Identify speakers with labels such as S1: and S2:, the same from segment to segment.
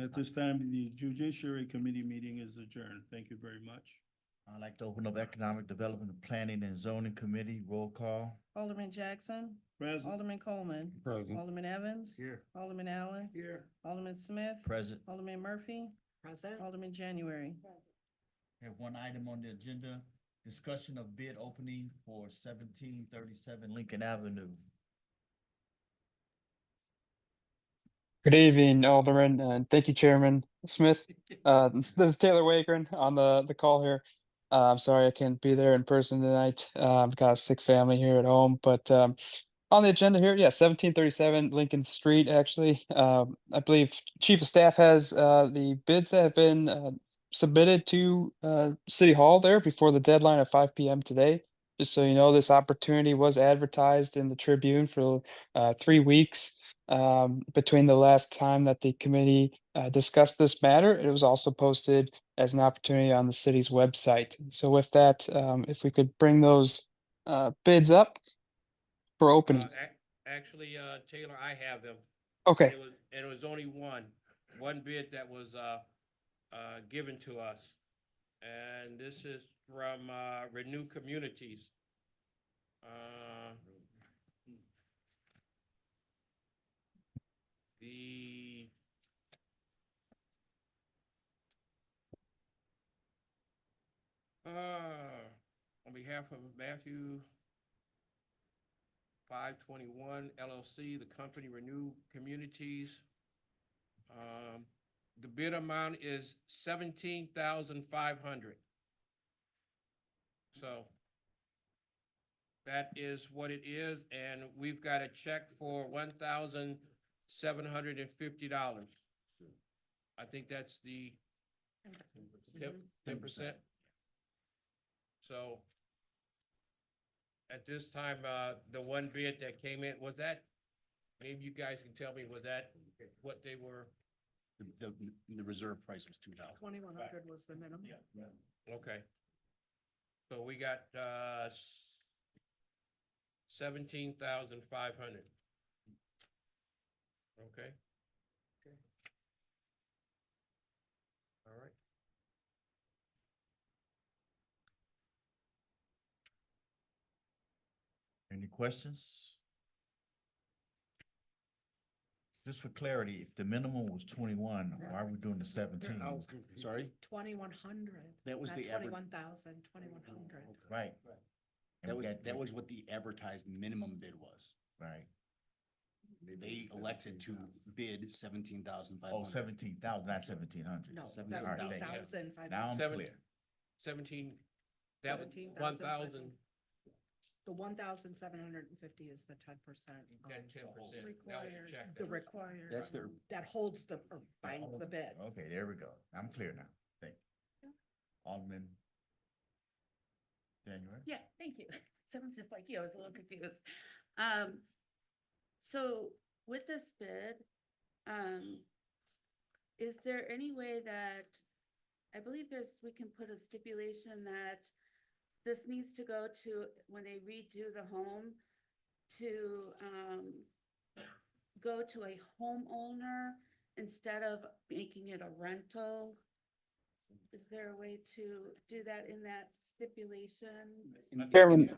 S1: At this time, the Judiciary Committee meeting is adjourned. Thank you very much.
S2: I'd like to open up Economic Development, and Planning and Zoning Committee, roll call.
S3: Alderman Jackson,
S1: President.
S3: Alderman Coleman,
S4: Present.
S3: Alderman Evans.
S2: Here.
S3: Alderman Allen,
S1: Here.
S3: Alderman Smith.
S2: Present.
S3: Alderman Murphy,
S5: Present.
S3: Alderman January.
S2: Have one item on the agenda, discussion of bid opening for seventeen thirty-seven Lincoln Avenue.
S6: Good evening, Alderman, and thank you, Chairman Smith. Uh, this is Taylor Wagren on the, the call here. Uh, I'm sorry I can't be there in person tonight. Uh, I've got a sick family here at home, but, um, on the agenda here, yeah, seventeen thirty-seven Lincoln Street, actually. Um, I believe Chief of Staff has, uh, the bids that have been, uh, submitted to, uh, City Hall there before the deadline of five PM today. Just so you know, this opportunity was advertised in the Tribune for, uh, three weeks um, between the last time that the committee uh, discussed this matter. It was also posted as an opportunity on the city's website. So with that, um, if we could bring those uh, bids up for
S7: Uh,
S6: opening.
S7: ac- Actually, uh, Taylor, I have them.
S6: Okay,
S7: It was- And it was only one, one bid that was, uh, uh, given to us. And this is from, uh, Renew Communities. Uh, The uh, on behalf of Matthew five twenty-one LLC, the company Renew Communities. Um, the bid amount is seventeen thousand five hundred. So that is what it is, and we've got a check for one thousand seven hundred and fifty dollars. I think that's the ten percent. So at this time, uh, the one bid that came in, was that, maybe you guys can tell me, was that what they were?
S2: The, the reserve price was two dollars.
S5: Twenty-one hundred was the minimum.
S7: Okay. So we got, uh, seventeen thousand five hundred. Okay. All right.
S2: Any questions? Just for clarity, if the minimum was twenty-one, why are we doing the seventeen? Sorry?
S5: Twenty-one hundred.
S8: That was
S5: Not
S8: the average, Oh,
S5: twenty-one thousand, twenty-one hundred.
S2: Right. And
S8: that
S2: we
S8: was,
S2: got-
S8: that was what the advertised minimum bid was.
S2: Right.
S8: They elected to bid seventeen thousand five
S2: Oh,
S8: hundred.
S2: seventeen thousand, not seventeen hundred.
S5: No,
S8: Seventy-
S5: that
S2: all right,
S5: would be
S2: thank you.
S5: thousand five
S2: Now I'm
S5: hundred.
S7: Seventeen-
S2: clear.
S7: Seventeen, that was
S5: 17,500.
S7: one thousand,
S5: The one thousand seven hundred and fifty is the ten percent.
S7: that ten percent. That was your
S5: Required,
S7: check.
S5: the
S7: that was-
S5: required.
S8: That's Oh. their,
S5: That holds the, or binds the bid.
S2: Oh, Okay, there we go. I'm clear now. Thank you. Alderman. January?
S9: Yeah, thank you. So I'm just like you, I was a little confused. Um, so with this bid, um, is there any way that, I believe there's, we can put a stipulation that this needs to go to, when they redo the home, to, um, go to a homeowner instead of making it a rental? Is there a way to do that in that stipulation?
S8: in the-
S6: Chairman.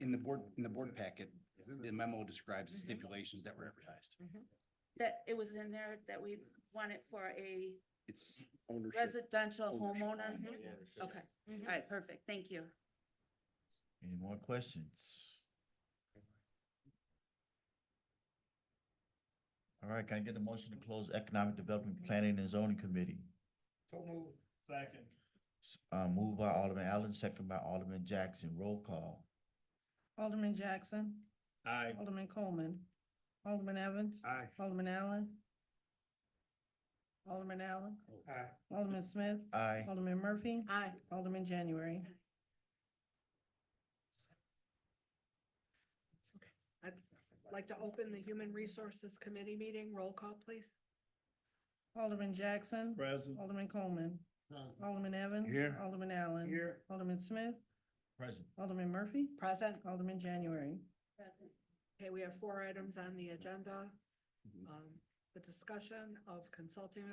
S8: in the board, in the board packet, the memo describes the stipulations that were advertised.
S9: That it was in there that we want it for a
S8: It's ownership.
S9: residential
S8: Ownership.
S9: homeowner?
S8: Ownership.
S9: Okay,
S5: Mm-hmm.
S9: all right, perfect, thank you.
S2: Any more questions? All right, can I get a motion to close Economic Development Planning and Zoning Committee?
S1: Second.
S2: S- Uh, moved by Alderman Allen, second by Alderman Jackson. Roll call.
S3: Alderman Jackson,
S1: Aye.
S3: Alderman Coleman, Alderman Evans,
S1: Aye.
S3: Alderman Allen. Alderman Allen,
S1: Aye.
S3: Alderman Smith,
S2: Aye.
S3: Alderman Murphy,
S5: Aye.
S3: Alderman January.
S5: I'd like to open the Human Resources Committee meeting. Roll call, please.
S3: Alderman Jackson,
S1: President.
S3: Alderman Coleman, Alderman Evans.
S1: Here.
S3: Alderman Allen.
S1: Here.
S3: Alderman Smith,
S2: Present.
S3: Alderman Murphy,
S5: Present.
S3: Alderman January.
S5: Okay,
S8: Mm-hmm.
S5: we have four items on the agenda. Um, The discussion of consulting